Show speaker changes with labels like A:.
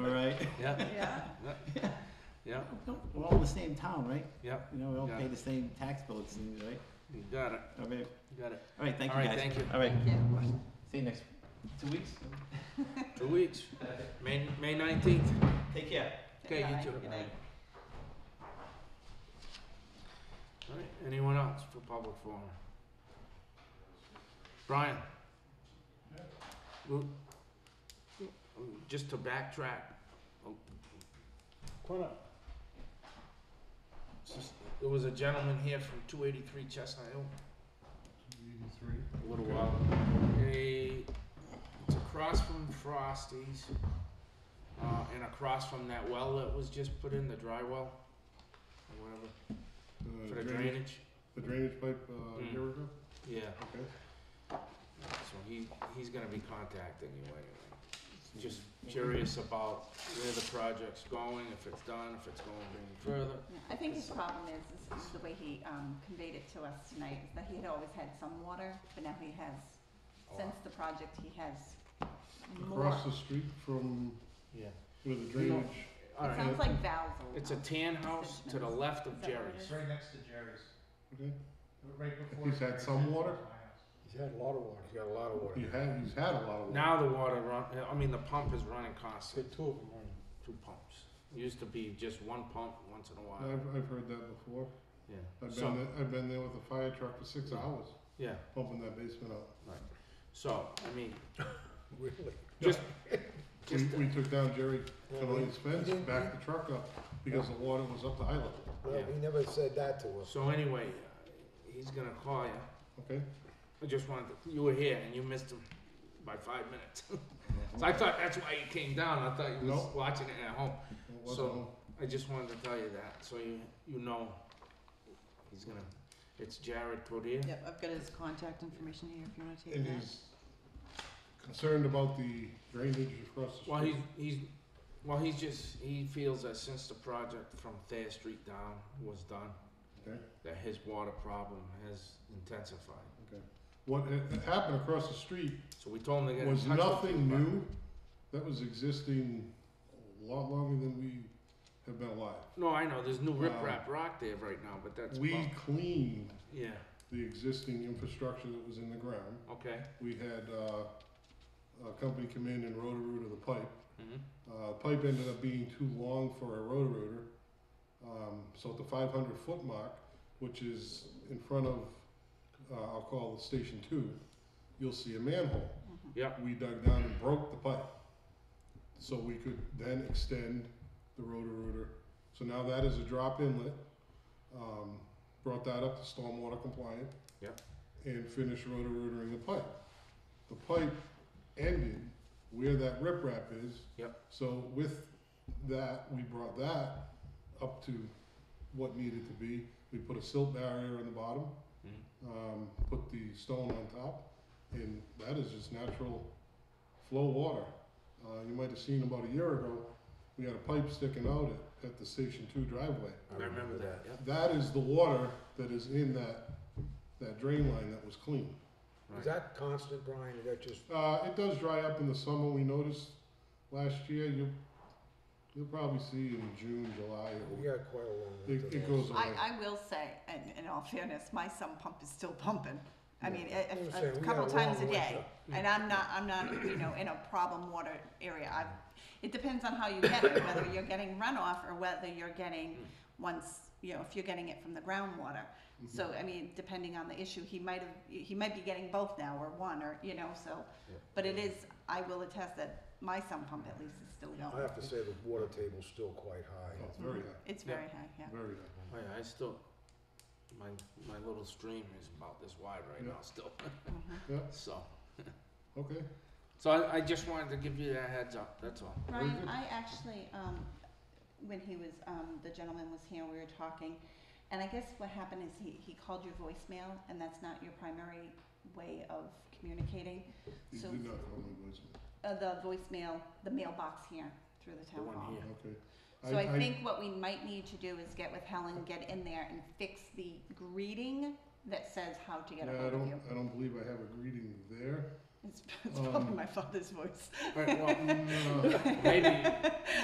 A: yeah,
B: Yeah,
A: yeah,
C: We're all in the same town, right?
A: yeah,
C: You know, we all
A: Yeah.
C: pay the same tax bill, it seems, right?
A: you got it,
C: All right,
A: you got it.
C: all right, thank
A: All
C: you guys.
A: right, thank you.
C: All right,
B: thank you.
C: see you next, two weeks? Uh,
A: Two weeks, May, May nineteenth.
C: Take care.
A: Okay, you
B: Bye.
A: too.
B: Good night.
A: All right, anyone else for public forum? Brian? Well, Just to backtrack. oh, Come up. It's just- There was a gentleman here from two eighty-three Chestnut Hill
D: Eighty-three.
A: a little while. A, it's across from Frosty's, uh, and across from that well that was just put in, the dry well, or whatever.
D: Uh,
A: For the drainage?
D: The drainage pipe, uh,
A: Mm.
D: a year ago,
A: Yeah,
D: okay.
A: so he, he's gonna be contacting you anyway. Just curious about where the project's going, if it's done, if it's going any further.
B: Yeah, I think his problem is, is the way he um, conveyed it to us tonight, is that he had always had some water, but now he has,
A: Oh,
B: since the project, he has more.
D: Across the street from
A: Yeah.
D: where the
A: You know-
D: drainage,
B: It
A: Alright,
B: sounds like valves. all
A: it's a
B: around.
A: tan house to the left
B: Is
A: of
B: that what it
A: Jerry's.
B: is?
E: It's right next to Jerry's,
D: okay,
E: right before.
D: He's had some
E: Jerry's,
D: water?
E: my house.
F: He's had a lot of water.
A: He's got a lot of water.
D: you have, he's had a lot of water.
A: Now the water run, I mean, the pump is running
F: He's
A: constantly.
F: had two of them running.
A: two pumps. It used to be just one pump once in a while.
D: I've, I've heard that before,
A: Yeah.
D: I've
A: so,
D: been, there- I've been there with a fire truck for six hours,
A: yeah.
D: pumping that basement out.
A: So, I mean,
F: Really?
A: just,
D: We,
A: just,
D: we took down Jerry Kelly's fence,
F: didn't-
D: backed the truck up, because the water was up to high level,
F: Well,
A: Yeah.
F: he never said that to us.
A: so anyway, uh, he's gonna call you.
D: okay?
A: I just wanted, to- you were here and you missed him by five minutes. so I thought that's why you came down. I thought you was
D: No.
A: watching it at home.
D: It wasn't
A: So-
D: on.
A: I just wanted to tell you that, so you, you know, he's gonna, it's Jared Todier.
G: Yep, I've got his contact information here if you wanna take
D: And
G: that.
D: he's concerned about the drainage across the street.
A: Well, he's, he's, well, he's just, he feels that since the project from Thayer Street down was done,
D: Okay.
A: that his water problem has intensified.
D: What ha- happened across the street
A: So we told him to get in
D: was
A: touch with you,
D: nothing
A: but-
D: new, that was existing a lot longer than we have been alive.
A: No, I know, there's new
D: Wow.
A: riprap rock there right now, but that's,
D: We
A: about-
D: cleaned
A: yeah,
D: the existing infrastructure that was in the ground.
A: okay,
D: We had, uh, a company come in and rotor rooter the pipe.
A: mhm,
D: Uh, pipe ended up being too long for a rotor rooter. Um, so at the five hundred foot mark, which is in front of, uh, I'll call it station two, you'll see a manhole.
B: Mhm.
A: Yep.
D: We dug down and broke the pipe. So we could then extend the rotor rooter. So now that is a drop inlet. Um, brought that up to stormwater compliant.
A: Yep.
D: And finished rotor rootering the pipe. The pipe ended where that riprap is.
A: Yep.
D: So with that, we brought that up to what needed to be. We put a silt barrier on the bottom,
A: mhm.
D: um, put the stone on top, and that is just natural flow water. Uh, you might have seen about a year ago, we had a pipe sticking out at, at the Station Two driveway.
A: I remember that, yep,
D: That is the water that is in that, that drain line that was clean.
F: Is that constant, Brian, or that just,
D: Uh, it does dry up in the summer, we noticed last year, you'll, you'll probably see in June, July,
F: we
D: it-
F: got quite a long way to
D: it,
F: go.
D: it goes away.
B: I, I will say, and in all fairness, my sump pump is still pumping. I mean,
F: I was
B: a, a,
F: saying,
B: a
F: we
B: couple
F: got long
B: times a
F: way
B: day.
F: to-
B: And I'm not, I'm not, you know, in a problem water area. I, it depends on how you get it, whether you're getting runoff or whether you're getting once, you know, if you're getting it from the groundwater. So, I mean, depending on the issue, he might have, he might be getting both now or one or, you know, so.
A: Yeah.
B: But it is, I will attest that my sump pump at least is still
F: I
B: going.
F: have to say the water table's still quite high.
D: Oh, It's very high,
B: It's
A: Yeah.
B: very high, yeah.
D: very high.
A: Oh, yeah, I still, my, my little stream is about this wide right
D: Yeah.
A: now still,
B: Mhm.
A: so.
D: Okay,
A: So I, I just wanted to give you that heads up, that's all.
D: Very
B: Ryan,
D: good.
B: I actually, um, when he was, um, the gentleman was here, we were talking, and I guess what happened is he, he called your voicemail, and that's not your primary way of communicating.
D: you
B: So,
D: did not call my voicemail,
B: uh, the voicemail, the mailbox here through the
A: The
B: town
A: one
B: hall.
A: here.
D: okay.
B: So I think what we might need to do is get with Helen, get in there and fix the greeting that says how to get a
D: Yeah, I
B: hold of
D: don't,
B: you.
D: I don't believe I have a greeting there.
B: It's, it's probably
D: um,
B: my father's voice.
A: Alright, well,
D: No.
A: maybe,